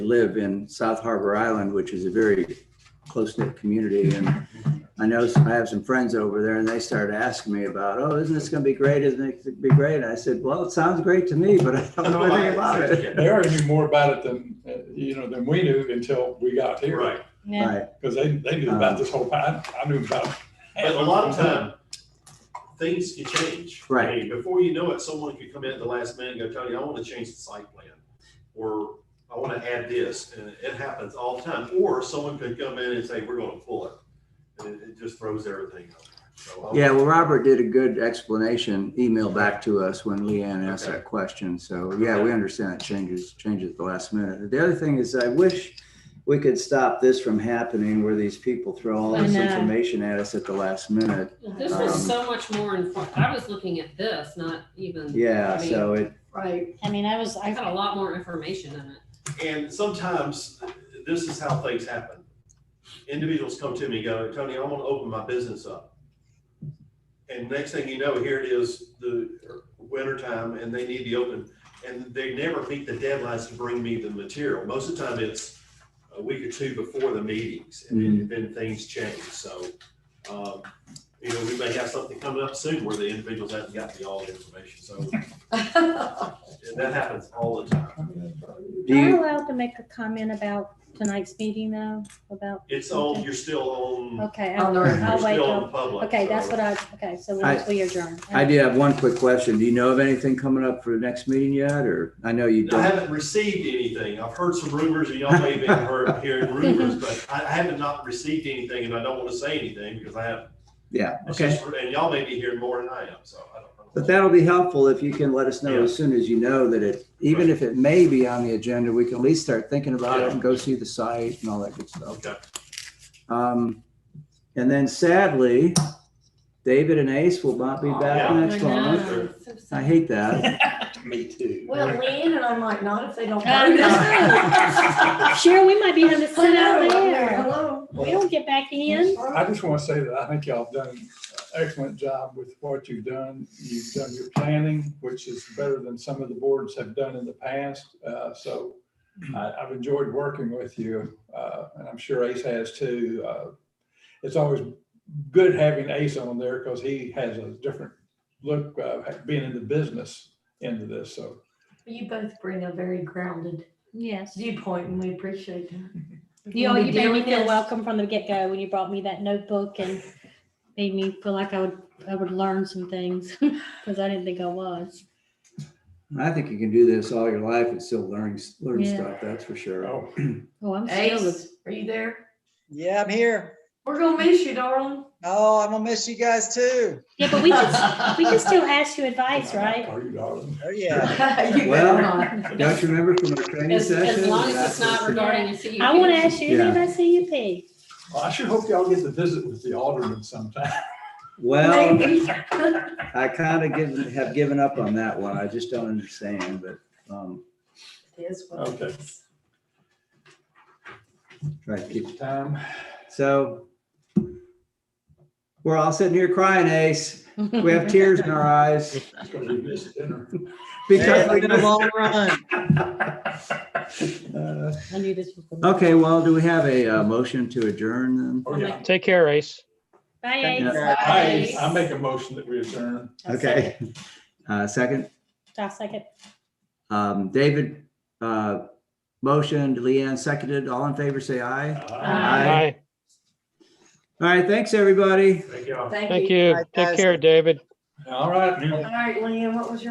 live in South Harbor Island, which is a very close-knit community. And I know s- I have some friends over there and they started asking me about, oh, isn't this going to be great? Isn't it gonna be great? And I said, well, it sounds great to me, but I don't know anything about it. They already knew more about it than, uh, you know, than we knew until we got here. Right, Yeah, Right, Because they, they knew about this whole, I, I knew about. but a lot of time, things can change. I Right. mean, Before you know it, someone could come in at the last minute and go, Tony, I wanna change the site plan, or I wanna add this, and it happens all the time, or someone could come in and say, we're gonna pull it. And it, it just throws everything up. So I'll- yeah, well, Robert did a good explanation, email back to us when Leanne asked that question. So, yeah, we understand it changes, changes at the last minute. The other thing is I wish we could stop this from happening where these people throw all I this know. information at us at the last minute. Well, This was Um, so much more informed. I was looking at this, not even. Yeah, I mean, so it, Right. I mean, I was, I got a I, lot more information in it. And sometimes this is how things happen. Individuals come to me and go, Tony, I want to open my business up. And next thing you know, here it is, the winter time and they need to open. And they never meet the deadlines to bring me the material. Most of the time it's a week or two before the meetings and then, then things change. So, um, you know, we may have something coming up soon where the individuals haven't got me all the information. So and that happens all the time. do Am I you, allowed to make a comment about tonight's meeting though, about, It's on, you're still on. okay, On I'll the record. I'll wait till, okay, Okay, that's what I, okay, so I- once we adjourn. I did have one quick question. Do you know of anything coming up for the next meeting yet, or I know you I don't? haven't received anything. I've heard some rumors, and y'all may have been heard, hearing rumors, but I I haven't not received anything, and I don't want to say anything because I have. Yeah, it's okay. just- And y'all may be hearing more than I am, so I don't. know. But that'll be helpful if you can let us know Yeah. as soon as you know that it, even if it may be on the agenda, we can at least start thinking about it and go see the site and all that good stuff. Okay, Um, and then sadly, David and Ace will not be back Oh, Yeah. next Oh I month. Sure. So sad. I hate that. Me too. Well, Leanne and I might not if they don't. I vote. know. Cheryl, we might be having to sit out there. Hello. We don't get back in. I just want to say that I think y'all have done an excellent job with what you've done. You've done your planning, which is better than some of the boards have done in the past. Uh, So I- I've enjoyed working with you, uh, and I'm sure Ace has too. Uh, It's always good having Ace on there because he has a different look, uh, being in the business end of this, so. You both bring a very grounded Yes. viewpoint and we appreciate that. You, all- you made me feel welcome from the get-go when you brought me that notebook and made me feel like I would, I would learn some things, because I didn't think I was. I think you can do this all your life and still learn, learn Yeah. stuff, that's for sure. oh, Oh, I'm still, Ace, are you there? Yeah, I'm here. We're gonna miss you, darling. Oh, I'm gonna miss you guys too. yeah, but we can, we can still ask you advice, right? Are you, darling? Oh, yeah. You Well, better not. Don't you remember from our training As, session? as long as it's That's- not regarding a CUP. I want to ask you Yeah. about CUP. Well, I sure hope y'all get to visit with the alderman sometime. Well. Maybe. I kind of given, have given up on that one. I just don't understand, but, um, It is what it Okay. is. try to keep, Time. so. We're all sitting here crying, Ace. We have tears in our eyes It's gonna be missed dinner. because we It's been a just- long run. uh, I knew this was. gonna- Okay, well, do we have a, uh motion to adjourn then? Oh, yeah. Take care, Ace. Bye, Yeah. Ace. I, I make a motion that we adjourn. I'll Okay. Uh, second, second. I'll second. um, David, uh, motioned, Leanne seconded. All in favor, say aye. Aye. Aye. All right, thanks, everybody. Thank y'all. Thank Thank you. you. Bye, Take guys. care, David. All right. All right, Leanne, what was your